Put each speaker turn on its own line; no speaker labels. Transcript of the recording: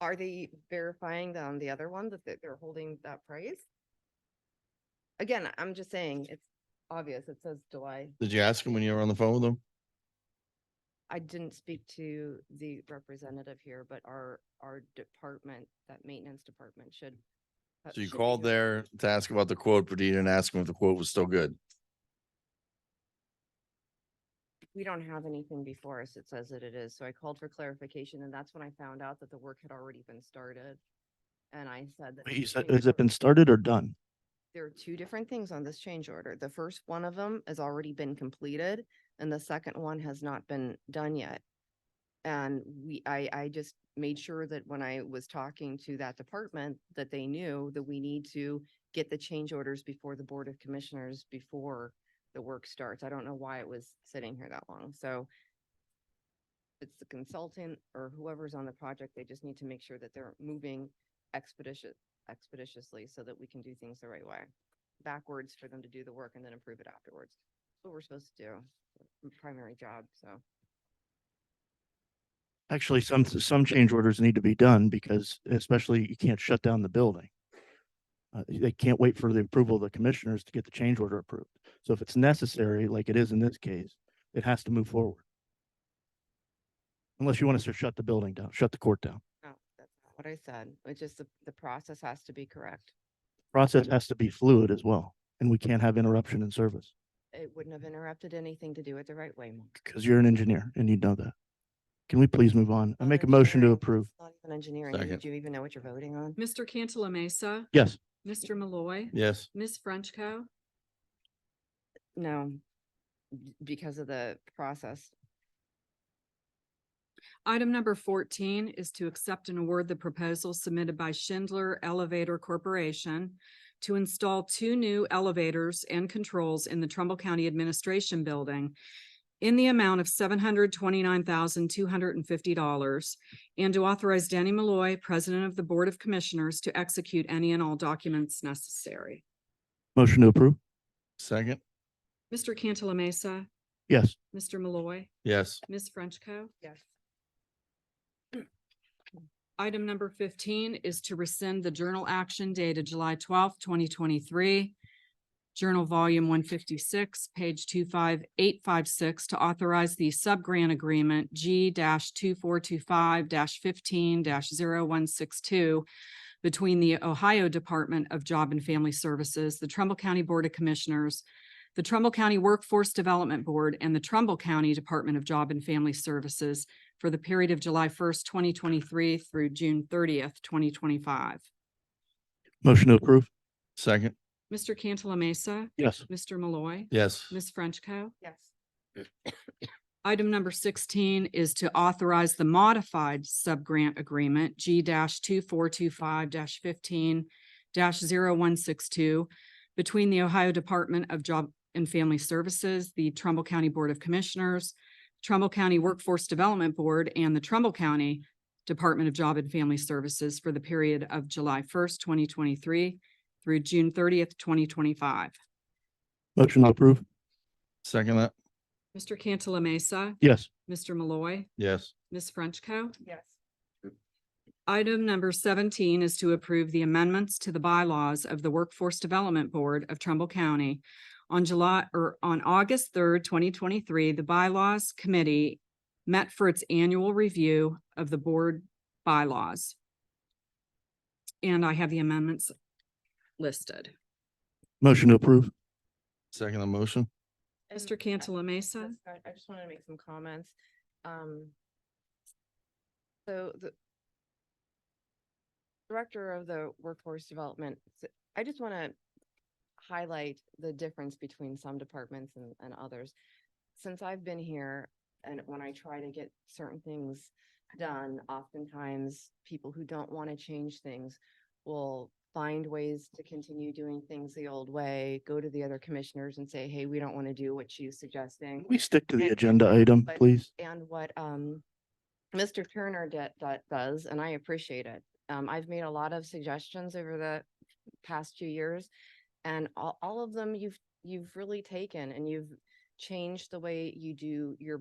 Are they verifying on the other one that they- they're holding that price? Again, I'm just saying, it's obvious. It says July.
Did you ask him when you were on the phone with him?
I didn't speak to the representative here, but our, our department, that maintenance department should. uh,
So you
should be
called
doing-
there to ask about the quote, but you didn't ask him if the quote was still good.
We don't have anything before us that says that it is, so I called for clarification and that's when I found out that the work had already been started. And I said that.
Wait,
the
you said-
change
has it been
order-
started or done?
There are two different things on this change order. The first one of them has already been completed and the second one has not been done yet. And we, I, I just made sure that when I was talking to that department, that they knew that we need to get the change orders before the Board of Commissioners, before the work starts. I don't know why it was sitting here that long, so it's the consultant or whoever's on the project, they just need to make sure that they're moving expeditious, expeditiously so that we can do things the right way. Backwards for them to do the work and then approve it afterwards. That's what we're supposed to do, m- primary job, so.
Actually, some, some change orders need to be done because especially you can't shut down the building. Uh, they can't wait for the approval of the commissioners to get the change order approved. So if it's necessary, like it is in this case, it has to move forward. Unless you want us to shut the building down, shut the court down.
No, that's not what I said. It's just the, the process has to be correct.
Process has to be fluid as well, and we can't have interruption in service
It wouldn't have interrupted anything to do it the right way. Mark.
because you're an engineer and you know that. Can we please move on? I
Not
make a motion to
engineering.
approve.
It's Not even engineering. Do you-
Second.
Do you even know what you're voting on?
Mr. Cantala Mesa,
Yes,
Mr. Malloy,
Yes.
Ms. Frenchco.
No, b- because of the process.
Item number fourteen is to accept and award the proposal submitted by Schindler Elevator Corporation to install two new elevators and controls in the Trumbull County Administration Building in the amount of seven hundred twenty-nine thousand two hundred and fifty dollars and to authorize Danny Malloy, President of the Board of Commissioners, to execute any and all documents necessary.
motion to approve.
Second?
Mr. Cantala Mesa,
Yes,
Mr. Malloy,
Yes.
Ms. Frenchco.
Yes.
Item number fifteen is to rescind the journal action dated July twelfth, twenty twenty-three. Journal Volume one fifty-six, page two five eight five six to authorize the sub-grant agreement G two four two five fifteen 162 between the Ohio Department of Job and Family Services, the Trumbull County Board of Commissioners, the Trumbull County Workforce Development Board, and the Trumbull County Department of Job and Family Services for the period of July first, twenty twenty-three through June thirtieth, twenty twenty-five.
motion to approve.
Second?
Mr. Cantala Mesa,
Yes.
Mr. Malloy,
Yes.
Ms. Frenchco.
Yes.
Item number sixteen is to authorize the modified sub-grant agreement G two four two five fifteen 162 between the Ohio Department of Job and Family Services, the Trumbull County Board of Commissioners, Trumbull County Workforce Development Board, and the Trumbull County Department of Job and Family Services for the period of July first, twenty twenty-three through June thirtieth, twenty twenty-five.
Motion to approve.
Second that?
Mr. Cantala Mesa,
Yes.
Mr. Malloy,
Yes.
Ms. Frenchco.
Yes.
Item number seventeen is to approve the amendments to the bylaws of the Workforce Development Board of Trumbull County. On July, or on August third, twenty twenty-three, the Bylaws Committee met for its annual review of the board bylaws. And I have the amendments listed.
Motion to approve.
Second the motion?
Mr. Cantala Mesa,
That's fine. I just wanted to make some comments. Um, so the director of the workforce development, s- I just want to highlight the difference between some departments and, and others. Since I've been here and when I try to get certain things done, oftentimes people who don't want to change things will find ways to continue doing things the old way, go to the other commissioners and say, hey, we don't want to do what she's suggesting.
Can We stick to the agenda item,
But-
please.
And what, um, Mr. Turner did, that does, and I appreciate it. Um, I've made a lot of suggestions over the past few years. And all, all of them you've, you've really taken and you've changed the way you do your